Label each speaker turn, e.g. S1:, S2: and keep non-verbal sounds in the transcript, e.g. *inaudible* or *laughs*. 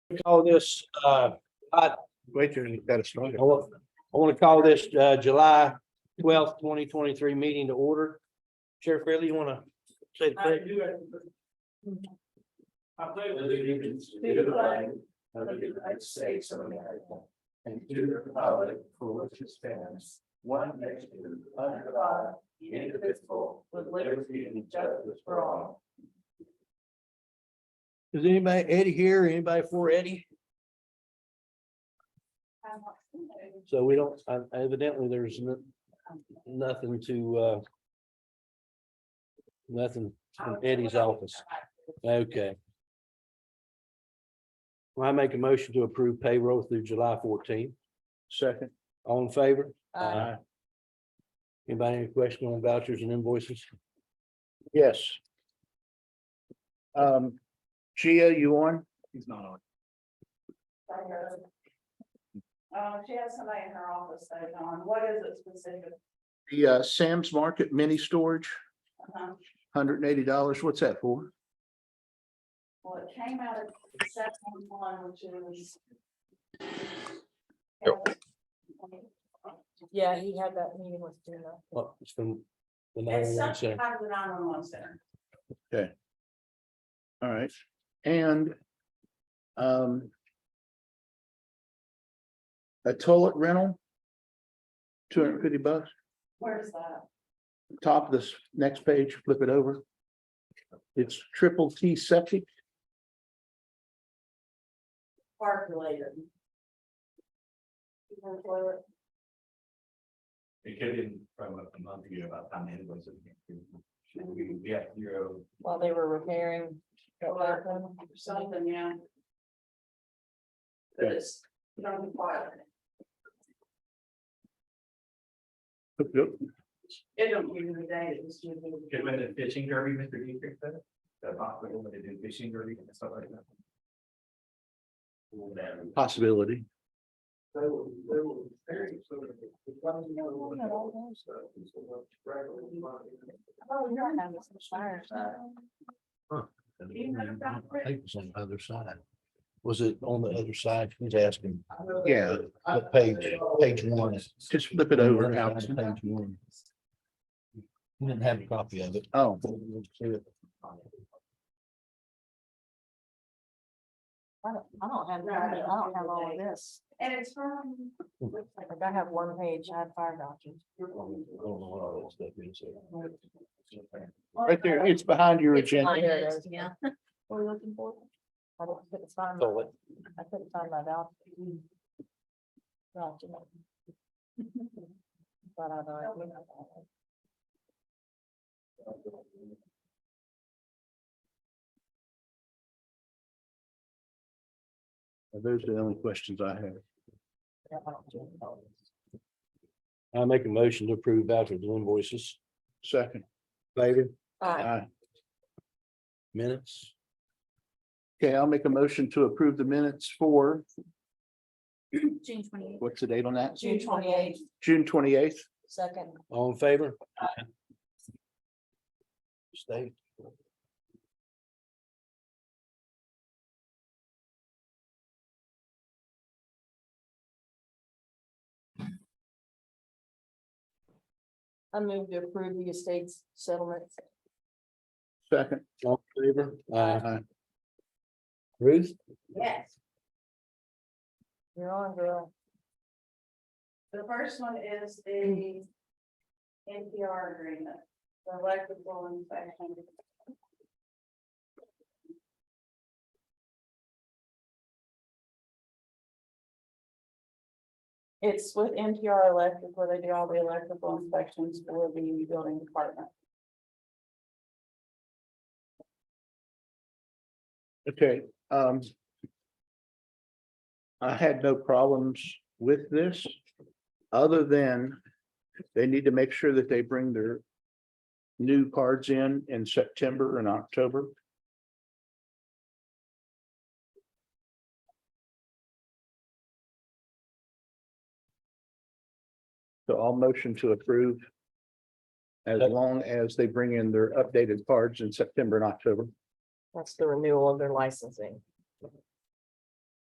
S1: to call this, uh, I,
S2: Wait till you got it started.
S1: I want, I want to call this, uh, July twelfth, twenty twenty-three meeting to order. Sheriff Fairley, you want to say the pledge?
S3: I pledge allegiance to the flag of the United States of America and to the republic for which it stands, one nation, under God, indivisible, with liberty and justice for all.
S1: Is anybody, Eddie here, anybody for Eddie? So we don't, uh, evidently, there's no- nothing to, uh, nothing from Eddie's office. Okay. Well, I make a motion to approve payroll through July fourteenth. Second. All in favor?
S4: uh,
S1: Aye. Anybody any question on vouchers and invoices?
S2: Yes. Um, Gia, you on? He's not on.
S4: Uh, she has somebody in her office that, on, what is it specific?
S2: The uh, Sam's Market Mini Storage,
S4: Uh-huh.
S2: hundred and eighty dollars. What's that for?
S4: Well, it came out of section one, which is.
S5: Yeah, he had that meeting with Gina.
S1: Oh, it's from the
S4: It's
S1: 911
S4: something
S1: center.
S4: out of the nine one one center.
S2: All right, and um. A toilet rental. Two hundred and fifty bucks,
S4: Where is that?
S2: top of this next page, flip it over. It's triple T septic.
S4: Park related. You know, toilet.
S3: It came in from a month ago about time invoices. We we have zero.
S5: While they were repairing.
S4: Or Something, yeah. But it's, you know, required. It don't give you the date, it's just.
S3: Good when the fishing derby, Mr. Dietrich said. The possible when they do fishing derby and stuff like that. Whatever.
S2: Possibility.
S3: They were, they were very sort of. it's one thing I wanted to know, so it's a lot of regular money.
S5: Oh, you're on this fire.
S4: You know about
S1: I think it's on the other side. Was it on the other side? He's asking.
S3: I know
S2: Yeah,
S3: that-
S1: the page- page one.
S2: Uh, Just flip it over.
S1: Page
S2: Allison.
S1: one. You didn't have a copy of it.
S2: Oh,
S5: I don't, I don't have, that. I don't have all of this.
S4: And it's from.
S5: Like I have one page, I have fire documents.
S2: right there. It's behind your agenda.
S5: yeah. *laughs* What are you looking for? I don't- couldn't find, my-
S1: Toilet.
S5: I couldn't find my document. Document. *laughs* But I don't.
S2: Those are the only questions I have.
S1: I make a motion to approve vouchers and invoices.
S2: Second.
S1: Favor,
S5: Uh,
S2: Aye.
S1: minutes,
S2: Okay, I'll make a motion to approve the minutes for,
S5: June twenty eighth.
S2: what's the date on that?
S5: June twenty eighth,
S2: June twenty eighth.
S5: second.
S1: all in favor? Stay.
S5: I move to approve the estate's settlement.
S2: Second.
S1: All in favor? Aye.
S2: Aye.
S1: Ruth?
S4: Yes,
S5: You're on, girl.
S4: the first one is the NPR agreement, the electrical inspection.
S5: It's with NPR Electric where they do all the electrical inspections for the building department.
S2: Okay, um. I had no problems with this, other than they need to make sure that they bring their. New cards in in September and October. So I'll motion to approve. As long as they bring in their updated cards in September and October.
S5: That's the renewal of their licensing.